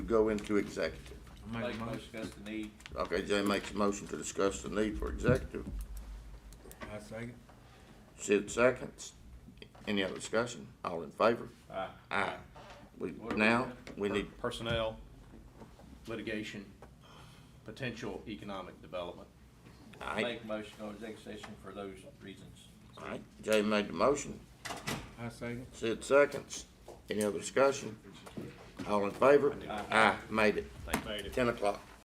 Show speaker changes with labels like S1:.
S1: go into executive?
S2: Make a motion, discuss the need.
S1: Okay, Jay makes a motion to discuss the need for executive.
S3: I second.
S1: Sid seconds. Any other discussion? All in favor?
S2: Aye.
S1: Aye. We, now, we need,
S2: Personnel, litigation, potential economic development.
S1: aye.
S2: Make a motion on executive session for those reasons.
S1: Aye. Jay made the motion.
S3: I second.
S1: Sid seconds. Any other discussion? All in favor?
S2: Aye.
S1: Aye, made it.
S2: Thank you.
S1: Ten o'clock.